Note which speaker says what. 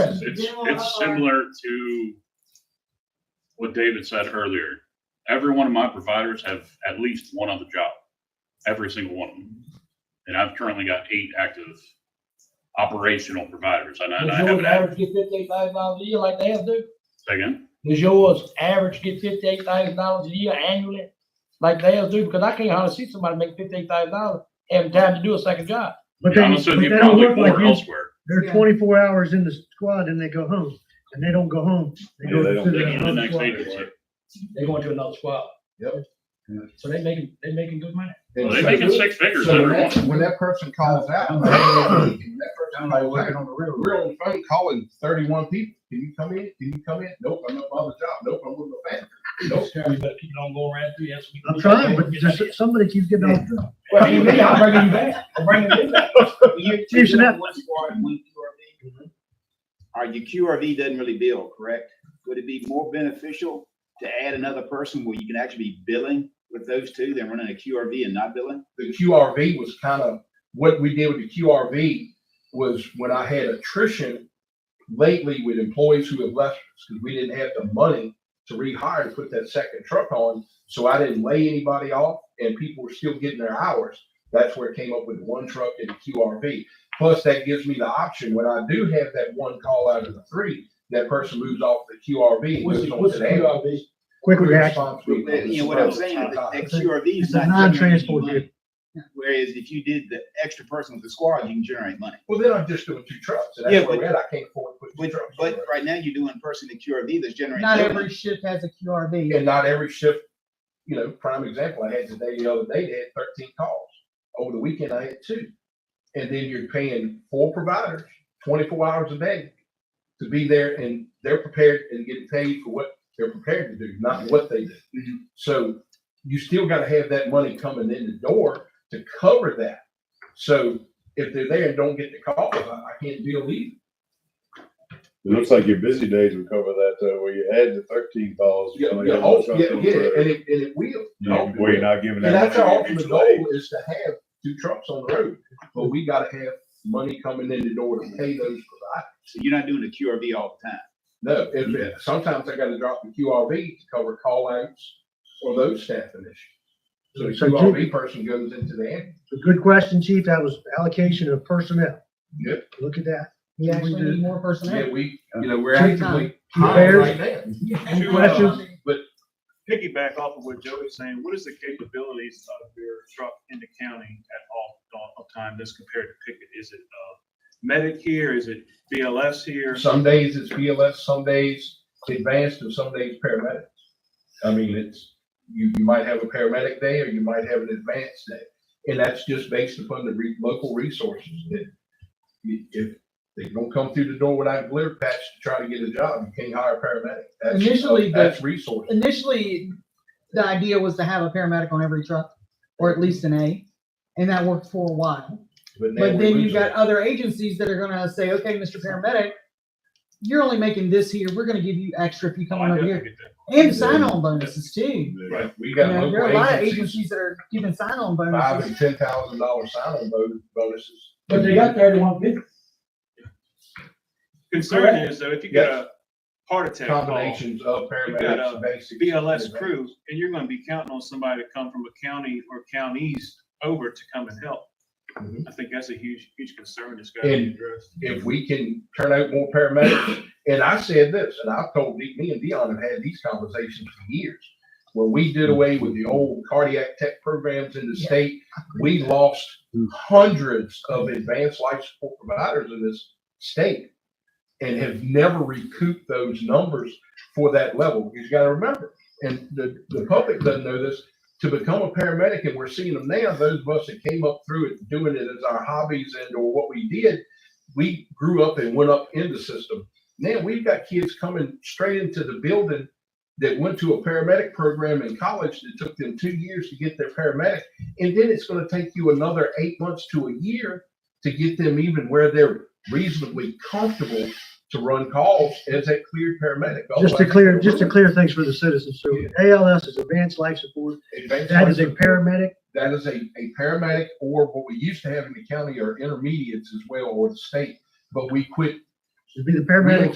Speaker 1: It's, it's, it's similar to what David said earlier. Every one of my providers have at least one other job, every single one of them. And I've currently got eight active operational providers, and I, and I
Speaker 2: Does yours
Speaker 1: haven't had,
Speaker 2: average get fifty-eight thousand dollars a year like they have do?
Speaker 1: say again,
Speaker 2: Does yours average get fifty-eight thousand dollars a year annually like they have do? Because I can't hardly see somebody make fifty-eight thousand dollars having time to do a second job.
Speaker 3: But
Speaker 1: Yeah,
Speaker 3: they,
Speaker 1: I'm
Speaker 3: but
Speaker 1: assuming
Speaker 3: they
Speaker 1: you
Speaker 3: don't
Speaker 1: probably
Speaker 3: work like
Speaker 1: more
Speaker 3: you,
Speaker 1: elsewhere.
Speaker 3: they're
Speaker 4: Yeah.
Speaker 3: twenty-four hours in the squad and they go home, and they don't go home. They go
Speaker 5: Yeah, they
Speaker 3: to
Speaker 1: They
Speaker 5: don't-
Speaker 1: go to the
Speaker 3: the
Speaker 1: next
Speaker 3: squad.
Speaker 1: agency.
Speaker 2: They going to another squad.
Speaker 6: Yep.
Speaker 2: So they making, they making good money.
Speaker 6: And
Speaker 1: They
Speaker 6: so-
Speaker 1: making six figures
Speaker 6: So when
Speaker 1: every
Speaker 6: that,
Speaker 1: one.
Speaker 6: when that person calls out, I'm like, "Hey, can that person, like, working on the railroad, we're on the phone calling thirty-one people, can you come in, can you come in? Nope, I'm not on the job, nope, I'm with my family, nope.
Speaker 2: But people don't go around through, that's.
Speaker 3: I'm trying, but there's somebody keeps getting off. track.
Speaker 2: Well, you mean, I'm bringing you back, I'm bringing you back.
Speaker 3: Chiefs and that-
Speaker 7: One squad and one QRV. All right, your QRV doesn't really bill, correct? Would it be more beneficial to add another person where you can actually be billing with those two than running a QRV and not billing?
Speaker 6: The QRV was kind of, what we did with the QRV was when I had attrition lately with employees who have left, because we didn't have the money to rehire and put that second truck on, so I didn't lay anybody off, and people were still getting their hours. That's where it came up with one truck and a QRV. Plus, that gives me the option, when I do have that one call out of the three, that person moves off the QRV. and goes on to that.
Speaker 3: Quick reaction.
Speaker 6: Response
Speaker 7: You
Speaker 6: group on the
Speaker 7: know what I'm
Speaker 6: spot.
Speaker 7: saying, that that
Speaker 3: It's a-
Speaker 7: QRV is
Speaker 3: It's a
Speaker 7: not.
Speaker 3: non-transport
Speaker 7: generating
Speaker 3: vehicle.
Speaker 7: money. Whereas if you did the extra person with the squad, you can generate money.
Speaker 6: Well, then I'm just doing two trucks, and
Speaker 7: Yeah,
Speaker 6: that's where
Speaker 7: but-
Speaker 6: we're at, I can't afford to put
Speaker 7: But,
Speaker 6: two trucks. on
Speaker 7: but
Speaker 6: there.
Speaker 7: right now you're doing person to QRV that's generating.
Speaker 4: Not
Speaker 7: no
Speaker 4: every
Speaker 7: money.
Speaker 4: ship has a QRV.
Speaker 6: And not every shift, you know, prime example, I had today, the other day, they had thirteen calls. Over the weekend, I had two. And then you're paying four providers, twenty-four hours a day to be there and they're prepared and get paid for what they're prepared to do, not what they do.
Speaker 7: Mm-hmm.
Speaker 6: So you still gotta have that money coming in the door to cover that. So if they're there and don't get the call, I, I can't deal either.
Speaker 5: It looks like your busy days would cover that, though, where you had the thirteen calls.
Speaker 6: Yeah,
Speaker 5: somebody
Speaker 6: yeah,
Speaker 5: had
Speaker 6: oh,
Speaker 5: one truck
Speaker 6: yeah,
Speaker 5: on
Speaker 6: yeah,
Speaker 5: the road.
Speaker 6: and it, and it will.
Speaker 5: You know,
Speaker 6: Oh, it
Speaker 5: Where
Speaker 6: will.
Speaker 5: you're not giving that.
Speaker 6: And that's
Speaker 5: money
Speaker 6: our
Speaker 5: to
Speaker 6: ultimate
Speaker 5: mutual aid.
Speaker 6: goal is to have two trucks on the road, but we gotta have money coming in the door to pay those providers.
Speaker 7: So you're not doing a QRV all the time.
Speaker 6: No, if, if- sometimes I gotta drop the QRV to cover call outs or those staffing issues. So the
Speaker 3: So do-
Speaker 6: QRV person goes into the ambulance.
Speaker 3: A Good question, chief. That was allocation of personnel.
Speaker 6: Yep.
Speaker 3: Look at that.
Speaker 4: You actually need more
Speaker 6: Yeah,
Speaker 4: personnel.
Speaker 6: we, you know, we're
Speaker 3: Two-
Speaker 6: actively
Speaker 3: two
Speaker 6: hiring right now.
Speaker 3: Any questions?
Speaker 8: piggyback off of what Joey's saying, what is the capabilities of your truck in the county at all, all the time, as compared to Pickett? Is it, uh, medic here, is it BLS here?
Speaker 6: Some days it's BLS, some days advanced, and some days paramedics. I mean, it's, you, you might have a paramedic day, or you might have an advanced day. And that's just based upon the re- local resources that i- if they don't come through the door without a glare patch to try to get a job, you can't hire a paramedic. That's-
Speaker 4: Initially, the-
Speaker 6: That's resources.
Speaker 4: Initially, the idea was to have a paramedic on every truck, or at least an A, and that worked for a while.
Speaker 6: now
Speaker 4: But
Speaker 6: we're
Speaker 4: then you've
Speaker 6: losing.
Speaker 4: got other agencies that are gonna say, okay, Mr. Paramedic, you're only making this here, we're gonna give you extra if you come
Speaker 8: Oh,
Speaker 4: on
Speaker 8: I
Speaker 4: over
Speaker 8: definitely
Speaker 4: here.
Speaker 8: get that.
Speaker 4: And sign-on bonuses too.
Speaker 6: Right, we
Speaker 4: You
Speaker 6: got
Speaker 4: know, there are a
Speaker 6: local
Speaker 4: lot of
Speaker 6: agencies,
Speaker 4: agencies that are giving sign-on
Speaker 6: five
Speaker 4: bonuses.
Speaker 6: and ten thousand dollar sign-on bon- bonuses.
Speaker 2: But they got thirty-one people.
Speaker 8: Concern is though, if you get a heart attack call,
Speaker 6: Combinations of
Speaker 8: got a
Speaker 6: paramedics, basic.
Speaker 8: BLS crew, and you're gonna be counting on somebody to come from a county or counties over to come and help.
Speaker 6: Mhm.
Speaker 8: I think that's a huge, huge concern that's gotta be
Speaker 6: And-
Speaker 8: addressed.
Speaker 6: if we can turn out more paramedics. And I said this, and I've told, me me and Dion have had these conversations for years. When we did away with the old cardiac tech programs in the
Speaker 4: Yeah.
Speaker 6: state, we lost hundreds of advanced life support providers in this state and have never recouped those numbers for that level. You've got to remember, and the, the public doesn't know this, to become a paramedic, and we're seeing them now, those of us that came up through it, doing it as our hobbies and or what we did, we grew up and went up in the system. Now we've got kids coming straight into the building that went to a paramedic program in college that took them two years to get their paramedic. And then it's going to take you another eight months to a year to get them even where they're reasonably comfortable to run calls as a cleared paramedic.
Speaker 3: Just to
Speaker 6: Otherwise,
Speaker 3: clear,
Speaker 6: they're
Speaker 3: just to
Speaker 6: ruined.
Speaker 3: clear things for the citizens. So ALS is Advanced Life Support.
Speaker 6: Advanced
Speaker 3: That is a
Speaker 6: life-
Speaker 3: paramedic.
Speaker 6: That is a, a paramedic or what we used to have in the county are intermediates as well or the state, but we quit
Speaker 3: It'd be the paramedic